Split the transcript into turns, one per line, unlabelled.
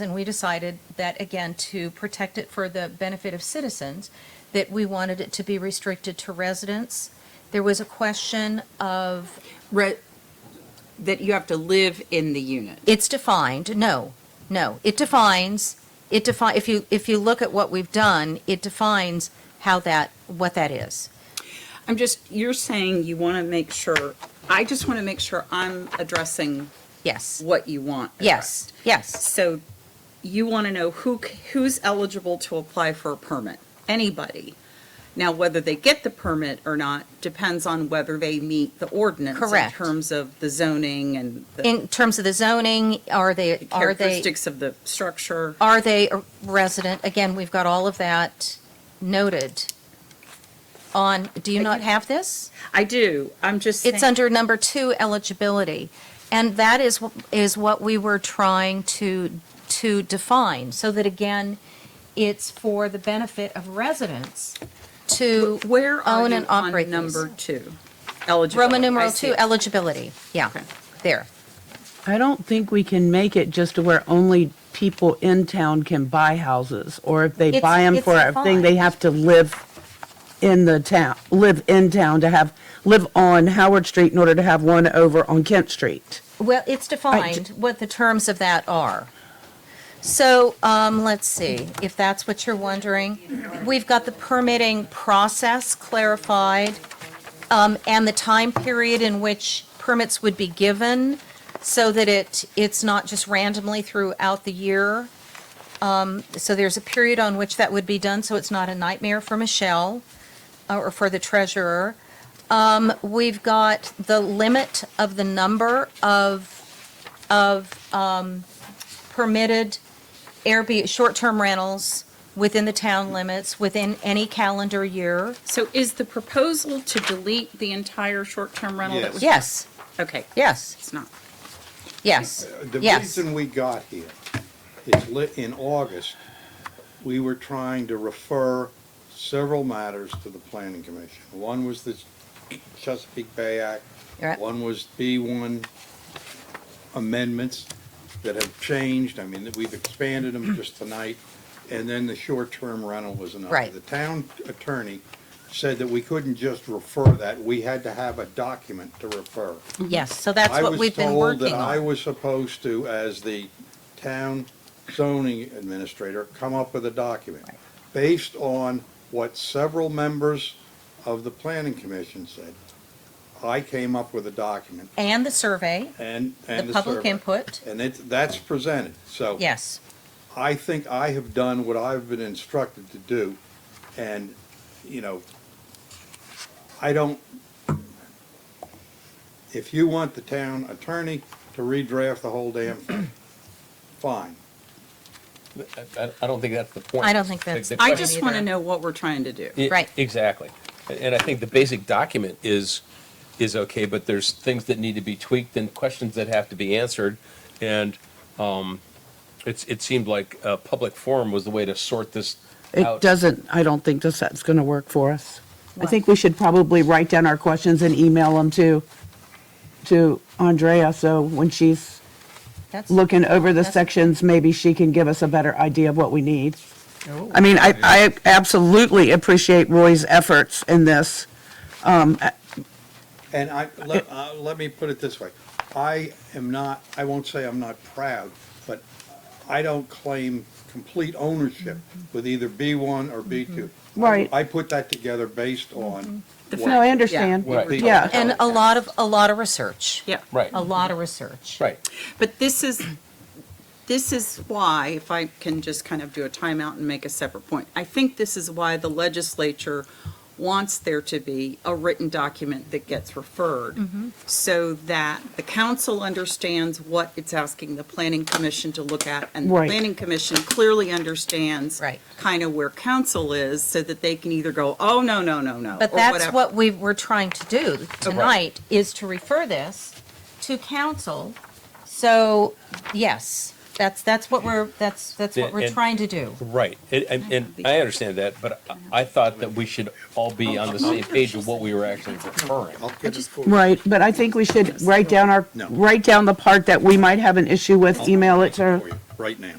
And we decided that, again, to protect it for the benefit of citizens, that we wanted it to be restricted to residents. There was a question of,
Re- that you have to live in the unit.
it's defined, no, no, it defines, it defi, if you, if you look at what we've done, it defines how that, what that is.
I'm just, you're saying you want to make sure, I just want to make sure I'm addressing
Yes,
what you want.
yes,
addressed.
yes,
So you want to know who, c- who's eligible to apply for a permit? Anybody. Now, whether they get the permit or not depends on whether they meet the ordinance.
Correct.
In terms of the zoning and the
in terms of the zoning, are they, are they,
characteristics of the structure.
are they a resident? Again, we've got all of that noted on, do you not have this?
I do, I'm just saying.
It's under number two, eligibility. And that is, wh- is what we were trying to, to define, so that again, it's for the benefit of residents to
Where are
own
you
and operate
on
these.
number two? Eligible.
Roman numeral two, eligibility, yeah,
Okay.
there.
I don't think we can make it just to where only people in town can buy houses, or if they
It's-
buy them
it's
for a thing, they
defined.
have to live in the town, live in town to have, live on Howard Street in order to have one over on Kent Street.
Well, it's defined what the terms of that are. So, um, let's see, if that's what you're wondering. We've got the permitting process clarified, um, and the time period in which permits would be given so that it, it's not just randomly throughout the year. Um, so there's a period on which that would be done, so it's not a nightmare for Michelle uh, or for the treasurer. We've got the limit of the number of, of um, permitted Airbnb, short-term rentals within the town limits, within any calendar year.
So is the proposal to delete the entire short-term rental? that was-
Yes,
Okay,
yes,
it's not.
yes,
The
yes.
reason we got here is lit, in August, we were trying to refer several matters to the planning commission. One was the Chesapeake Bay Act.
Right.
One was B one amendments that have changed. I mean, that we've expanded them just tonight. And then the short-term rental was another.
Right.
The town attorney said that we couldn't just refer that. We had to have a document to refer.
Yes, so that's
I
what
was
we've been
told
working
that I
on.
was supposed to, as the town zoning administrator, come up with a document based on what several members of the planning commission said. I came up with a document
And the survey,
and,
the
and the
public
survey.
input,
And it, that's presented, so.
yes.
I think I have done what I've been instructed to do, and, you know, I don't, if you want the town attorney to redraft the whole damn thing, fine.
I, I don't think that's the point.
I don't think that's-
The- the
I
question-
just want to
either.
know what we're trying to do.
I-
Right.
Exactly. And- And I think the basic document is, is okay, but there's things that need to be tweaked and questions that have to be answered. And um, it's, it seemed like a public forum was the way to sort this
It
out.
doesn't, I don't think this, that's going to work for us. I think we should probably write down our questions and email them to, to Andrea, so when she's
That's-
looking over the
That's-
sections, maybe she can give us a better idea of what we need. I mean, I, I absolutely appreciate Roy's efforts in this.
And I, let, uh, let me put it this way, I am not, I won't say I'm not proud, but I don't claim complete ownership with either B one or B two.
Right.
I put that together based on. what-
No, I understand.
what
Right.
people
Yeah.
tell
And
me.
a lot of, a lot of research.
Yeah.
Right,
A lot of research.
right.
But this is, this is why, if I can just kind of do a timeout and make a separate point, I think this is why the legislature wants there to be a written document that gets referred
Mm-hmm.
so that the council understands what it's asking the planning commission to look at and the
Right.
planning commission clearly understands
Right.
kind of where council is so that they can either go, oh, no, no, no, no.
But
or
that's
whatever.
what we were trying to do tonight, is to refer this to council. So, yes, that's, that's what we're, that's, that's what we're
And-
trying to do.
Right, and, and- and I understand that, but I- I thought that we should all be on the same page of what we were actually referring.
I'll get it for you.
Right, but I think we should write down our,
No.
write down the part that we might have an issue with, email it to,
Right now.